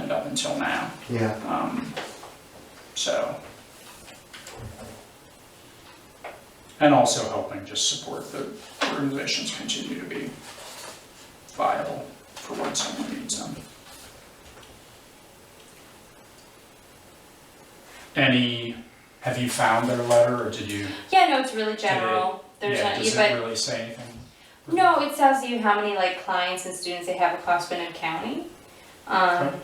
until now. Yeah, Um, so. And also helping just support the organizations continue to be viable for when someone needs them. Any, have you found their letter or did you? Yeah, no, it's really general. There's yeah, not, Does but it really say anything? no, it tells you how many like clients and students they have across Benham County. Um, Okay.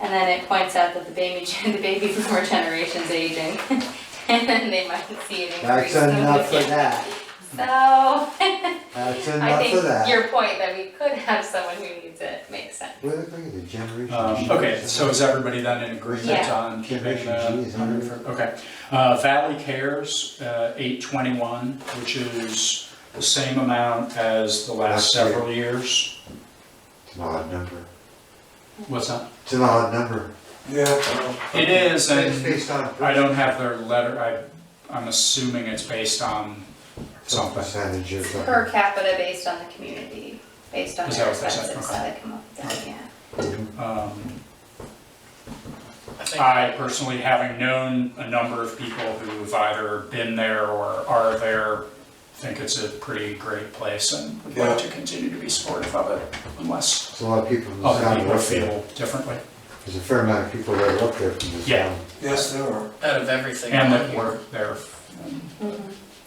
and then it points out that the baby, gen- the baby boomer generation's aging, and then they might see an increase. that's in the enough for weekend. that, So that's I enough for think that. your point that we could have someone who needs it makes sense. Where the frick is the generation? Um, G? okay, so is everybody then in agreement Yeah. on keeping Generation G the is hundred under- for, okay. Uh, Valley Cares, uh, eight twenty-one, which is the same amount as the last Last year. several years. It's an odd number, What's that? it's an odd number. Yeah. It is, It's and based on. I don't have their letter, I, I'm assuming it's based on Some something. percentage of. the- Per capita based on the community, based on Is their that what they said? expenses, Okay. how they come up with that, yeah. Um, I think- I personally, having known a number of people who've either been there or are there, think it's a pretty great place and would like to continue to be supportive of it unless There's a lot of people from the other town Oh, people work there, feel differently. there's a fair amount of people that work there from the Yeah. town. Yes, there are. Out of everything And on that here, work there.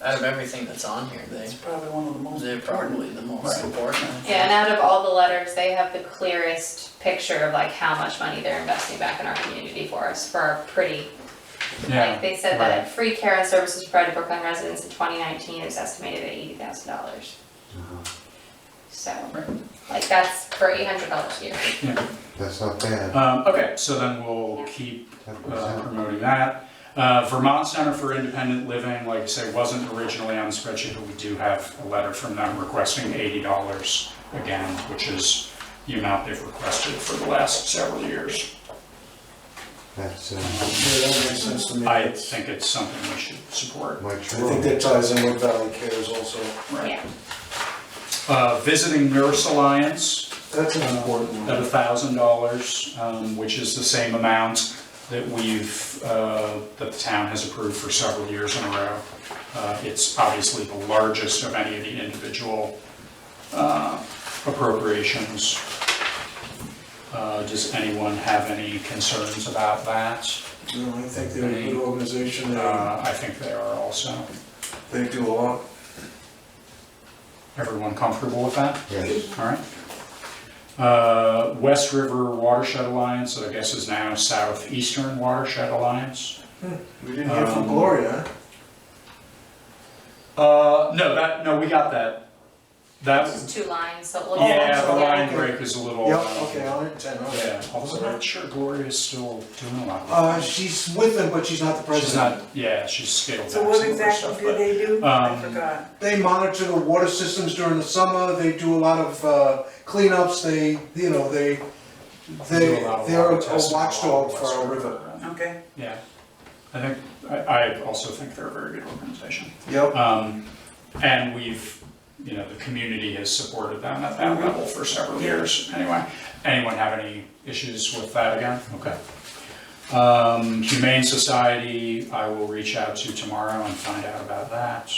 out of everything that's on here, they, It's probably one of the most. they're probably the most Right. important. Yeah, and out of all the letters, they have the clearest picture of like how much money they're investing back in our community for us, for our pretty. Like, Yeah, they said that free care and services provided to Brooklyn residents in twenty nineteen is estimated at eighty thousand dollars. Uh-huh. So, Right. like, that's for eight hundred dollars a year. yeah. That's not bad, Um, okay, so then we'll keep ten uh, percent, promoting that. Uh, Vermont Center for Independent Living, like I say, wasn't originally on the spreadsheet, but we do have a letter from them requesting eighty dollars again, which is the amount they've requested for the last several years. that's, uh, Yeah, that makes sense to me. I think it's something we should support. Mike I think Troy, that ties in with Valley Cares also. Right. Yeah, Uh, Visiting Nurse Alliance, That's an important at one. thousand dollars, um, which is the same amount that we've, uh, that the town has approved for several years in a row. Uh, It's obviously the largest of any of the individual uh, appropriations. Uh, Does anyone have any concerns about that? No, I think they're a good organization. They, Uh, I think they are also. they do a lot. Everyone comfortable with that? yes, All right. Uh, West River Watershed Alliance, that I guess is now Southeastern Watershed Alliance. We didn't hear from Um, Gloria. huh? Uh, no, that, no, we got that. That, just two lines, so we'll. yeah, the sorry, line okay. break is a little. Yep, uh, okay, I'll attend, okay. Yeah, although I'm not sure Gloria's still doing a lot. Uh, she's with them, but she's not the She's president. not, yeah, she's scaled back So some of what her stuff, exactly do but- they do? um, I forgot. They monitor the water systems during the summer, they do a lot of uh, cleanups, they, you know, they, do they, a lot of they're water a testing watchdog along for West our river. Okay. Yeah, I think, I, I also think they're a very good organization. Yep, Um, and we've, you know, the community has supported them at that level for several years, anyway. Anyone have any issues with that again? Okay. Um, Humane Society, I will reach out to tomorrow and find out about that.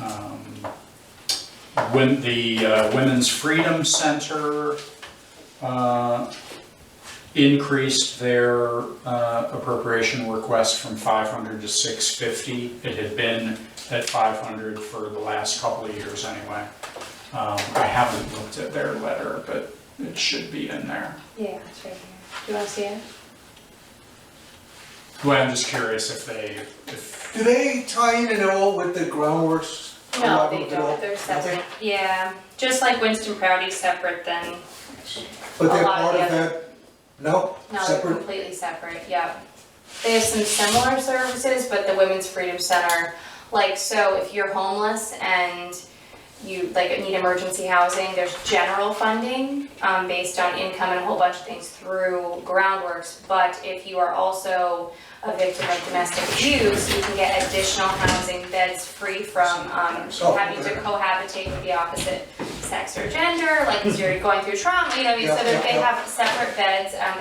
Um, When, the uh, Women's Freedom Center, uh, increased their uh, appropriation request from 500 to 650. It had been at 500 for the last couple of years anyway. Um, I haven't looked at their letter, but it should be in there. Yeah, it's right here. Do you wanna see it? Well, I'm just curious if they, if, do they tie in at all with the groundworks? No, collaborative they at all? don't, they're Okay. separate, yeah, just like Winston Proudy's separate than But they're A lot of part of the other- that, no, No, they're separate, completely separate, yeah. They have some similar services, but the Women's Freedom Center, like, so if you're homeless and you, like, need emergency housing, there's general funding, um, based on income and a whole bunch of things through groundworks. But if you are also a victim of domestic abuse, you can get additional housing beds free from, um, Oh, having to okay. cohabitate with the opposite sex or gender, like, because you're going through trauma, you know, so Yeah, that yeah, they yeah. have separate beds, um,